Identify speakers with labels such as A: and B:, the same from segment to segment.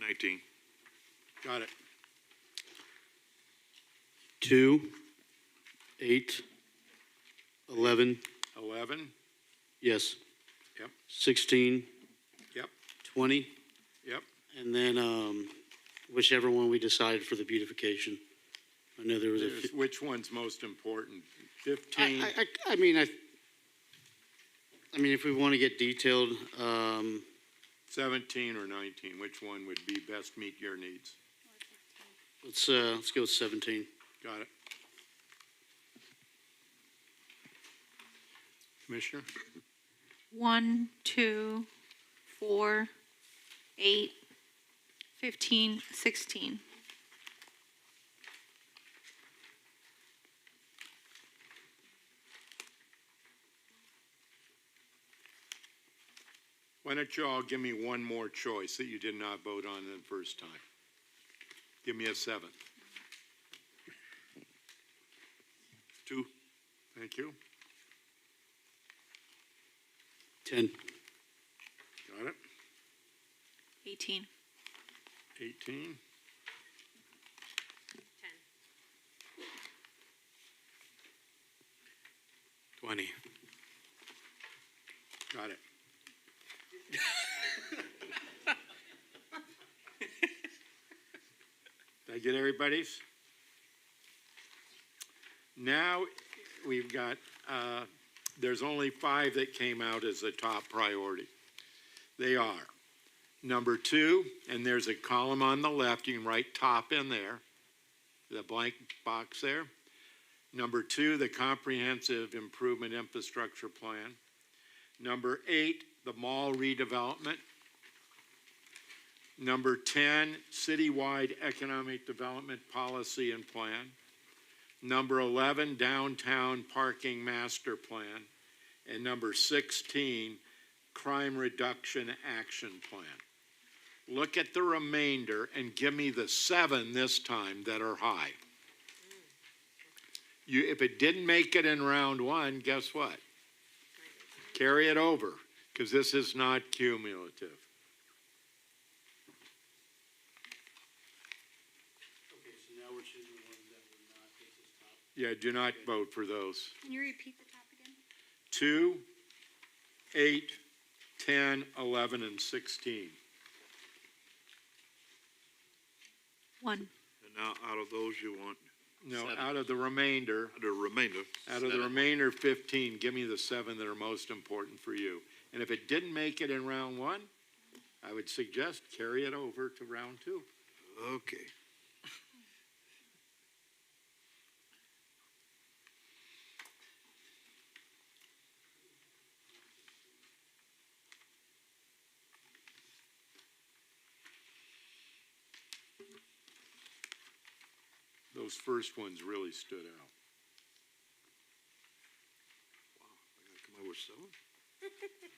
A: 19.
B: Got it.
C: two, eight, eleven,
B: 11,
C: yes.
B: Yep.
C: Sixteen.
B: Yep.
C: Twenty,
B: yep,
C: and then, um, whichever one we decided for the beautification. I know there was a,
B: There's-
C: few-
B: which one's most important?
C: I,
B: 15,
C: I, I, I mean, I, I mean, if we want to get detailed, um,
B: 17, or 19? Which one would be best meet your needs?
C: let's, uh, let's go with seventeen.
B: Got it. Commissioner?
D: One, two, four, eight, fifteen, sixteen.
B: Why don't you all give me one more choice that you did not vote on the first time? Give me a seventh.
A: Two.
B: Thank you.
C: Ten.
B: Got it.
D: Eighteen.
B: 18.
A: 20.
B: Got it. Did I get everybody's? Now, we've got, uh, there's only five that came out as a top priority. They are, number two, and there's a column on the left, you can write top in there, the blank box there. Number two, the Comprehensive Improvement Infrastructure Plan. Number eight, the mall redevelopment. Number 10, citywide economic development policy and plan. Number 11, downtown parking master plan. And number 16, crime reduction action plan. Look at the remainder and give me the seven this time that are high. You, if it didn't make it in round one, guess what? carry it over, because this is not cumulative.
C: Okay, so now we're choosing the ones that would not get this
B: Yeah,
C: top.
B: do not vote for those.
D: Can you repeat the top again?
B: Two, eight, ten, eleven, and sixteen.
D: One.
A: And now out of those, you want
B: No,
A: Seven.
B: out of the remainder,
A: the remainder.
B: out of the remainder fifteen, give me the seven that are most important for you. And if it didn't make it in round one, I would suggest carry it over to round two.
A: Okay.
B: Those first ones really stood out.
A: I gotta come up with seven?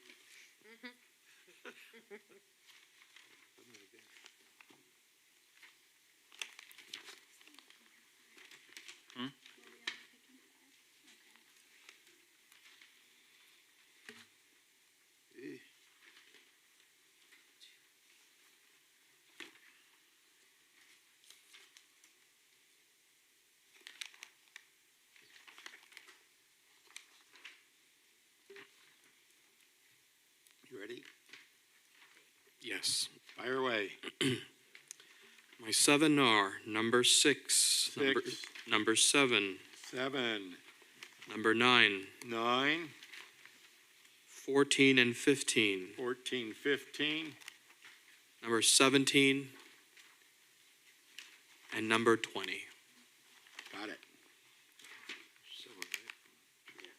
B: You ready?
E: Yes.
B: Fire away.
E: My seven are number six, number,
B: Six,
E: number seven,
B: seven,
E: number nine,
B: nine,
E: 14 and 15,
B: fourteen, fifteen,
E: number 17, and number 20.
B: Got it.
A: Seven, right?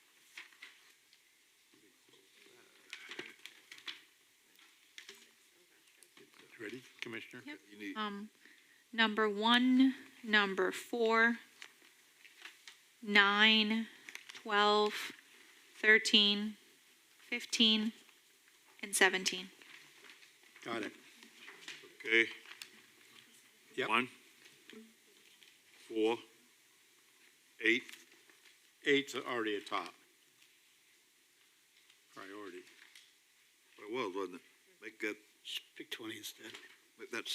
B: Ready, Commissioner?
D: Yep.
A: You need,
D: Um, number one, number four, nine, twelve, thirteen, fifteen, and seventeen.
B: Got it.
A: okay.
B: Yep.
A: One. Four. Eight.
B: Eight's already a top. Priority.
A: What it was, wasn't it? Make that,
C: Pick twenty instead.
A: make that